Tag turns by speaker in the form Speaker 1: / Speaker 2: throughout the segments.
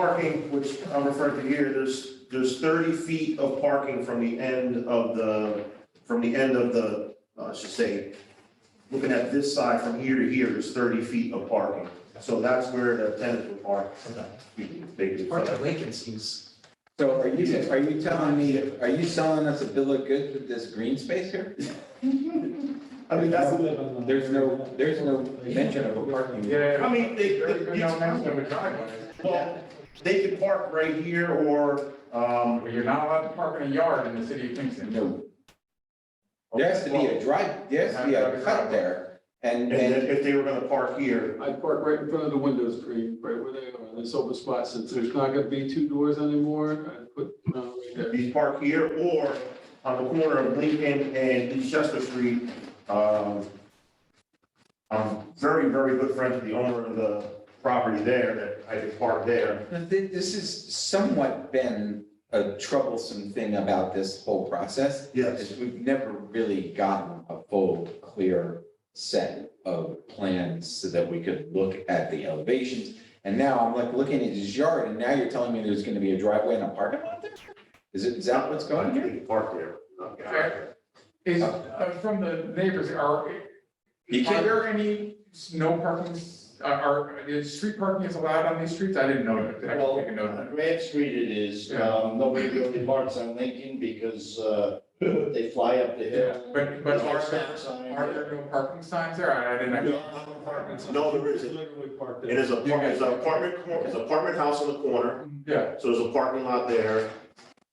Speaker 1: parking, which I'm referring to here, there's, there's thirty feet of parking from the end of the, from the end of the, uh, I should say, looking at this side from here to here, there's thirty feet of parking. So that's where the tenants would park. They could-
Speaker 2: Part of vacancies.
Speaker 3: So are you, are you telling me, are you selling us a bill of goods with this green space here?
Speaker 1: I mean, that's,
Speaker 3: There's no, there's no mention of a parking.
Speaker 4: Yeah.
Speaker 1: I mean, they-
Speaker 4: There's
Speaker 1: they-
Speaker 4: No mention of a driveway.
Speaker 1: well, they could park right here or, um,
Speaker 4: Well, you're not allowed to park in a yard in the city of Kingston.
Speaker 3: No, there has to be a drive, there has to be a cut there. And,
Speaker 1: and then
Speaker 3: and
Speaker 1: if they were gonna park here,
Speaker 5: I park right in front of the windows, Green, right where they are, this open spot, since there's not gonna be two doors anymore, I put, uh, right there.
Speaker 1: you park here or on the corner of Lincoln and East Chester Street. Um, I'm very, very good friends with the owner of the property there that I could park there.
Speaker 3: thi- this has somewhat been a troublesome thing about this whole process.
Speaker 1: Yes.
Speaker 3: is we've never really gotten a full, clear set of plans so that we could look at the elevations. And now I'm like looking at his yard and now you're telling me there's gonna be a driveway and a parking lot there? Is it, is that what's going
Speaker 1: You
Speaker 3: here?
Speaker 1: can Park there. not get out of there.
Speaker 4: Is, uh, from the neighbors, are, are
Speaker 3: You can't-
Speaker 4: there any no parking, uh, are, is street parking is allowed on these streets? I didn't know that. I didn't
Speaker 6: Well,
Speaker 4: take a note of that.
Speaker 6: on Grant Uh, Street it is,
Speaker 4: Yeah.
Speaker 6: um, nobody really parks on Lincoln because, uh, they fly up the hill.
Speaker 4: But, but are,
Speaker 6: Stop sign.
Speaker 4: there- are there no parking signs there? I I didn't. know.
Speaker 1: No, there isn't.
Speaker 5: Literally parked
Speaker 1: It
Speaker 5: there.
Speaker 1: is a, par- it's an apartment, cor- it's an apartment house on the corner,
Speaker 4: Yeah.
Speaker 1: so there's a parking lot there.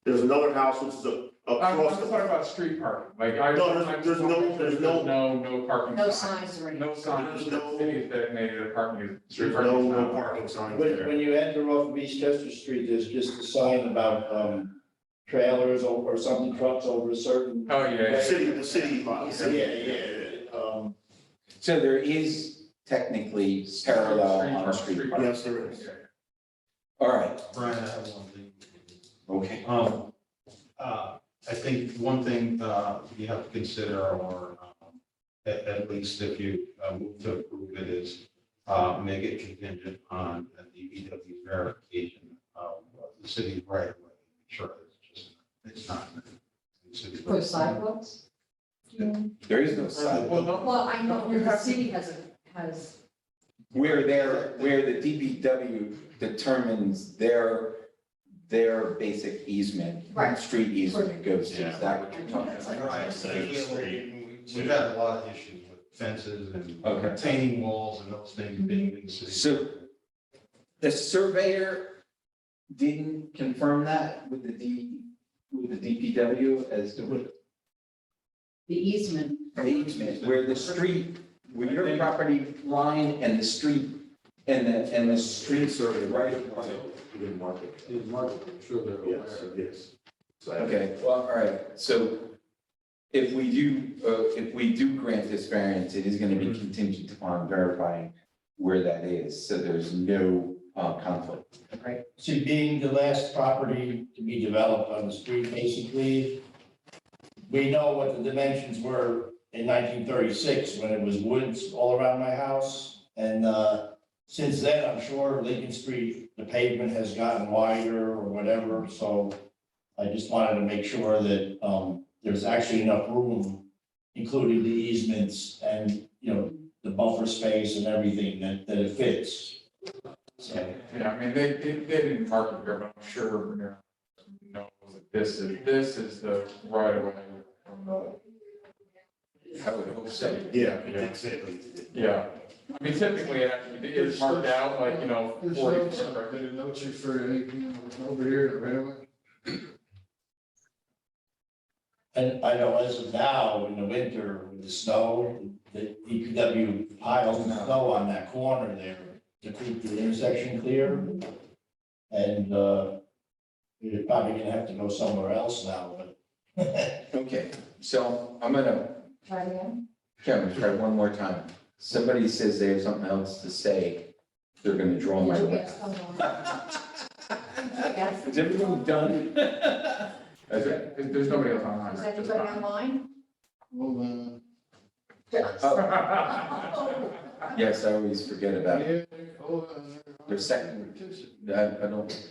Speaker 1: There's another house which is a-
Speaker 3: Uh,
Speaker 4: I'm, I'm
Speaker 1: across
Speaker 4: talking
Speaker 1: the.
Speaker 4: about street parking, like I.
Speaker 1: No, there's-
Speaker 4: I'm-
Speaker 1: there's no- there's no-
Speaker 4: No, no parking.
Speaker 7: No
Speaker 4: sign.
Speaker 7: signs or anything.
Speaker 4: No signs,
Speaker 1: There's
Speaker 4: the
Speaker 1: no-
Speaker 4: city is designated a parking.
Speaker 1: There's no, no parking sign
Speaker 6: When,
Speaker 1: there.
Speaker 6: when you enter off of East Chester Street, there's just a sign about, um, trailers or, or something trucks over a certain.
Speaker 4: Oh, yeah,
Speaker 1: The
Speaker 4: yeah.
Speaker 1: city, the city, the
Speaker 6: Yeah,
Speaker 1: city.
Speaker 6: yeah, um,
Speaker 3: So there is technically parallel on street.
Speaker 4: parking.
Speaker 1: Yes, there is.
Speaker 3: All right,
Speaker 8: Brian, I have one thing.
Speaker 3: okay.
Speaker 8: Um, uh, I think one thing, uh, you have to consider or, um, at, at least if you, uh, move to approve it is, uh, make it contingent on a DPW verification of the city's right of way. Sure, it's just, it's not. the city's right of way.
Speaker 7: For sidewalks?
Speaker 3: There is no sidewalk.
Speaker 4: Well, no,
Speaker 7: Well, I know
Speaker 4: You
Speaker 7: the
Speaker 4: have to-
Speaker 7: city has, a has,
Speaker 3: Where there, where the DPW determines their, their basic easement,
Speaker 7: Right.
Speaker 3: street easement goes to, is that what you're talking
Speaker 7: That's like-
Speaker 3: about?
Speaker 8: Right, so We've had a lot of issues with fences and
Speaker 3: Okay.
Speaker 8: retaining walls and those things being in the city.
Speaker 3: So the surveyor didn't confirm that with the D, with the DPW as to
Speaker 7: the easement,
Speaker 3: the easement, where the street, where your property line and the street, and the, and the street survey, right? of way.
Speaker 1: You didn't mark it.
Speaker 5: It's marked, I'm sure they're aware.
Speaker 1: Yes, yes. So-
Speaker 3: Okay, well, all right, so if we do, uh, if we do grant this variance, it is gonna be contingent upon verifying where that is, so there's no, uh, conflict.
Speaker 6: see, being the last property to be developed on the street, basically, we know what the dimensions were in nineteen thirty-six, when it was woods all around my house. And, uh, since then, I'm sure Lincoln Street, the pavement has gotten wider or whatever, so I just wanted to make sure that, um, there's actually enough room, including the easements and, you know, the buffer space and everything that, that it fits. So.
Speaker 4: Yeah, I mean, they, they, they didn't park it here, but I'm sure Vermeer knows that this is, this is the right of way from the.
Speaker 3: I would hope so.
Speaker 1: Yeah,
Speaker 4: Yeah.
Speaker 1: that's it.
Speaker 4: Yeah, I mean, typically, it actually is marked out like, you know,
Speaker 9: There's
Speaker 4: forty
Speaker 9: no,
Speaker 4: percent.
Speaker 9: I made a note you for anything over here, the railway.
Speaker 6: And I know as of now, in the winter, with the snow, the DPW piles of snow on that corner there to keep the intersection clear. And, uh, you're probably gonna have to go somewhere else now, but.
Speaker 3: Okay, so I'm gonna
Speaker 7: right in.
Speaker 3: Kevin, try one more time. Somebody says they have something else to say, they're gonna draw my
Speaker 7: Yes,
Speaker 3: weapon.
Speaker 7: come on. Yes.
Speaker 3: Is everyone done? Okay.
Speaker 4: There- There's nobody else online.
Speaker 7: Is
Speaker 4: right?
Speaker 7: anybody online?
Speaker 9: Well, uh,
Speaker 7: Yes.
Speaker 3: Oh,
Speaker 7: Oh,
Speaker 3: Yes, I always forget about it.
Speaker 5: Yeah, oh, uh,
Speaker 3: Their second-
Speaker 5: petition.
Speaker 3: I, I don't